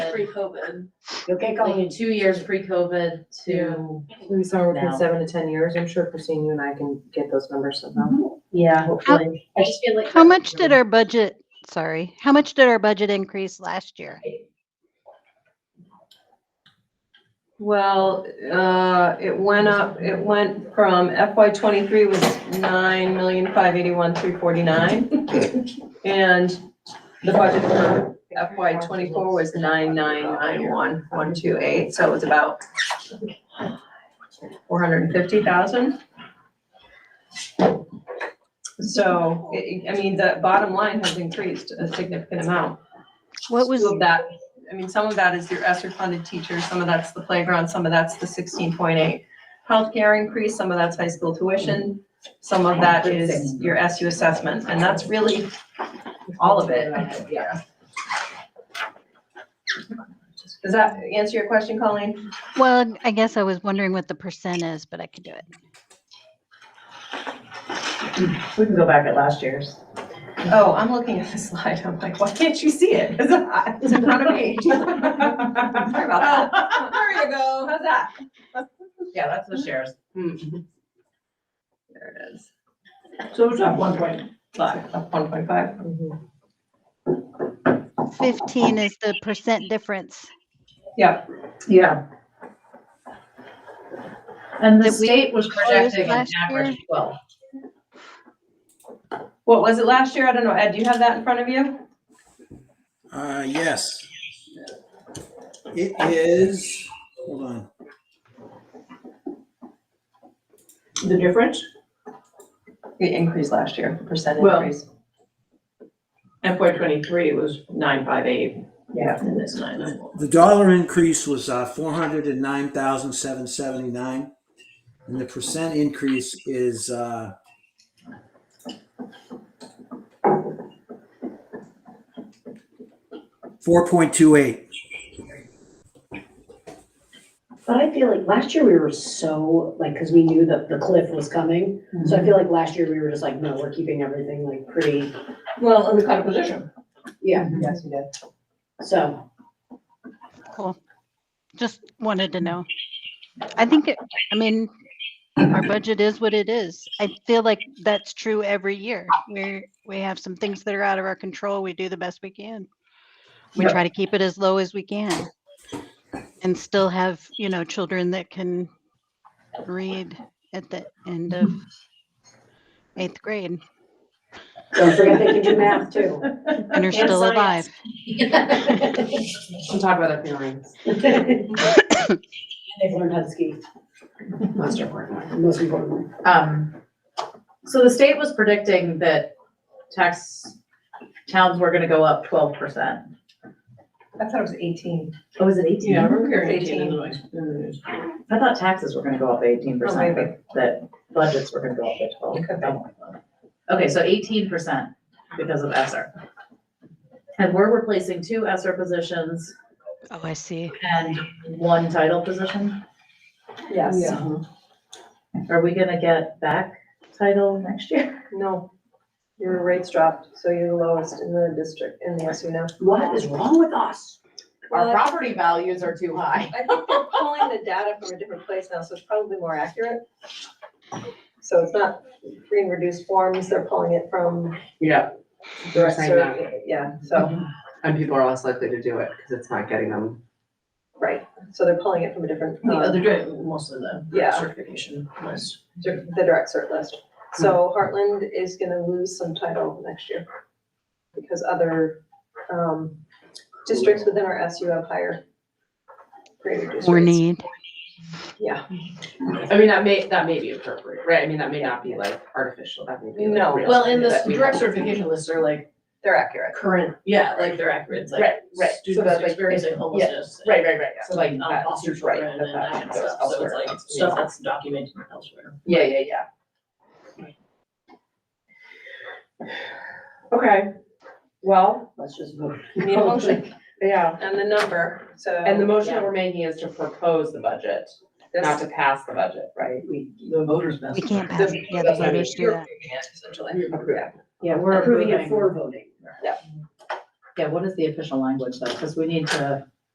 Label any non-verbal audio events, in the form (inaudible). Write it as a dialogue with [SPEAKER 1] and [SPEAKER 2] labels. [SPEAKER 1] pre-COVID.
[SPEAKER 2] You'll get
[SPEAKER 1] Like
[SPEAKER 2] going.
[SPEAKER 1] two years pre-COVID to,
[SPEAKER 3] We saw within
[SPEAKER 1] Now.
[SPEAKER 3] seven to ten years, I'm sure Christine, you and I can get those numbers somehow.
[SPEAKER 1] yeah, hopefully. I just feel like.
[SPEAKER 4] How much did our budget, sorry, how much did our budget increase last year?
[SPEAKER 5] Well, uh, it went up, it went from FY twenty-three was nine million, five eighty-one, three forty-nine. And the budget for FY twenty-four was nine, nine, nine, one, one, two, eight, so it was about four hundred and fifty thousand. So, it- I mean, the bottom line has increased a significant amount.
[SPEAKER 4] What was,
[SPEAKER 5] Some of that, I mean, some of that is your ESSER funded teachers, some of that's the playground, some of that's the sixteen point eight. Healthcare increase, some of that's high school tuition, some of that is your SU assessment, and that's really all of it. Yeah. Does that answer your question, Colleen?
[SPEAKER 4] well, I guess I was wondering what the percent is, but I could do it.
[SPEAKER 2] We can go back at last year's.
[SPEAKER 5] Oh, I'm looking at the slide, I'm like, why can't you see it? It's it's in front of (laughs) me. Sorry about that. There you go. How's that?
[SPEAKER 2] Yeah, that's the shares.
[SPEAKER 4] Mm-hmm.
[SPEAKER 5] There it is.
[SPEAKER 2] So it's up one point.
[SPEAKER 5] Five, up one point five.
[SPEAKER 3] Mhm.
[SPEAKER 4] Fifteen is the percent difference.
[SPEAKER 5] Yeah,
[SPEAKER 2] Yeah.
[SPEAKER 1] And the
[SPEAKER 4] Did we
[SPEAKER 1] state was projecting an
[SPEAKER 4] last
[SPEAKER 1] average twelve.
[SPEAKER 5] what was it last year? I don't know. Ed, do you have that in front of you?
[SPEAKER 6] Uh, yes. It is, hold on,
[SPEAKER 2] The difference?
[SPEAKER 5] The increase last year, the percent
[SPEAKER 7] Well-
[SPEAKER 5] increase.
[SPEAKER 7] FY twenty-three was nine five eight.
[SPEAKER 2] Yeah.
[SPEAKER 7] And it's nine nine one.
[SPEAKER 6] the dollar increase was, uh, four hundred and nine thousand, seven seventy-nine. And the percent increase is, uh, four point two eight.
[SPEAKER 8] But I feel like last year we were so, like, because we knew that the cliff was coming. So I feel like last year we were just like, no, we're keeping everything like pretty,
[SPEAKER 7] Well, and we caught a position.
[SPEAKER 8] yeah,
[SPEAKER 2] Yes, we did.
[SPEAKER 8] so.
[SPEAKER 4] Cool. Just wanted to know. I think, it- I mean, our budget is what it is. I feel like that's true every year. We're, we have some things that are out of our control. We do the best we can. We
[SPEAKER 7] Yep.
[SPEAKER 4] try to keep it as low as we can. And still have, you know, children that can read at the end of eighth grade
[SPEAKER 8] Don't forget they can do math too.
[SPEAKER 4] and are still alive.
[SPEAKER 3] We'll talk about that feeling.
[SPEAKER 8] And they've learned how to ski,
[SPEAKER 2] Most important.
[SPEAKER 8] most importantly.
[SPEAKER 1] Um, so the state was predicting that tax, towns were gonna go up twelve percent.
[SPEAKER 5] I thought it was eighteen.
[SPEAKER 1] Oh, was it eighteen?
[SPEAKER 7] Yeah, I remember hearing
[SPEAKER 5] It's
[SPEAKER 7] eighteen in
[SPEAKER 5] 18.
[SPEAKER 7] the noise. in the news.
[SPEAKER 1] I thought taxes were gonna go up eighteen percent,
[SPEAKER 5] Oh, maybe.
[SPEAKER 1] but that budgets were gonna go up at twelve.
[SPEAKER 5] could be.
[SPEAKER 1] something like that. Okay, so eighteen percent because of ESER. And we're replacing two ESER positions
[SPEAKER 4] Oh, I see.
[SPEAKER 1] and one title position.
[SPEAKER 5] Yes.
[SPEAKER 1] Are we gonna get back title next year?
[SPEAKER 5] No, your rates dropped, so you're the lowest in the district, in the SU now.
[SPEAKER 2] What is wrong with us?
[SPEAKER 5] Well, that's-
[SPEAKER 1] property values are too high.
[SPEAKER 5] I think they're pulling the data from a different place now, so it's probably more accurate. So it's not free and reduced forms, they're pulling it from.
[SPEAKER 3] Yeah.
[SPEAKER 5] the
[SPEAKER 3] They're saying that.
[SPEAKER 5] Yeah, so,
[SPEAKER 3] And people are less likely to do it because it's not getting them.
[SPEAKER 5] right, so they're pulling it from a different,
[SPEAKER 7] The
[SPEAKER 5] uh,
[SPEAKER 7] other day, mostly the
[SPEAKER 5] Yeah.
[SPEAKER 7] certification was.
[SPEAKER 5] dir- the direct cert list.
[SPEAKER 3] Hmm.
[SPEAKER 5] So Heartland is gonna lose some title next year because other, um, districts within our SU have higher grade reduced
[SPEAKER 4] Or
[SPEAKER 5] rates.
[SPEAKER 4] need.
[SPEAKER 5] Yeah,
[SPEAKER 3] I mean, that may, that may be appropriate, right? I mean, that may not be like artificial, that may be. like,
[SPEAKER 5] No.
[SPEAKER 3] real,
[SPEAKER 7] Well, and the
[SPEAKER 3] that we-
[SPEAKER 7] direct certification lists are like
[SPEAKER 5] they're accurate.
[SPEAKER 7] current, yeah, like they're accurate, it's like
[SPEAKER 3] Right, right. So
[SPEAKER 7] students
[SPEAKER 3] that, like,
[SPEAKER 7] experiencing homelessness. and
[SPEAKER 3] Right, right, right, yeah.
[SPEAKER 7] So like
[SPEAKER 3] that-
[SPEAKER 7] uh, foster
[SPEAKER 3] right,
[SPEAKER 7] children
[SPEAKER 3] that
[SPEAKER 7] and that kind of
[SPEAKER 3] goes
[SPEAKER 7] stuff, so it's
[SPEAKER 3] elsewhere.
[SPEAKER 7] like stuff that's documented elsewhere.
[SPEAKER 3] Yeah, yeah, yeah. Okay, well,
[SPEAKER 8] Let's just vote.
[SPEAKER 5] You Need a motion
[SPEAKER 3] yeah,
[SPEAKER 5] and the number, so.
[SPEAKER 3] and the motion
[SPEAKER 5] yeah,
[SPEAKER 3] that we're making is to propose the budget, not
[SPEAKER 5] this-
[SPEAKER 3] to pass the budget, right?
[SPEAKER 5] We.
[SPEAKER 7] The voters mess.
[SPEAKER 4] We can't pass
[SPEAKER 5] this-
[SPEAKER 4] it. Yeah, the
[SPEAKER 5] that's what I mean.
[SPEAKER 4] voters do
[SPEAKER 5] You're
[SPEAKER 4] that.
[SPEAKER 5] approving it, Essentially.
[SPEAKER 3] Yeah.
[SPEAKER 1] Yeah, we're
[SPEAKER 8] Approving it
[SPEAKER 1] approving.
[SPEAKER 8] for voting.
[SPEAKER 1] Yeah, what is the official language though? Because we need to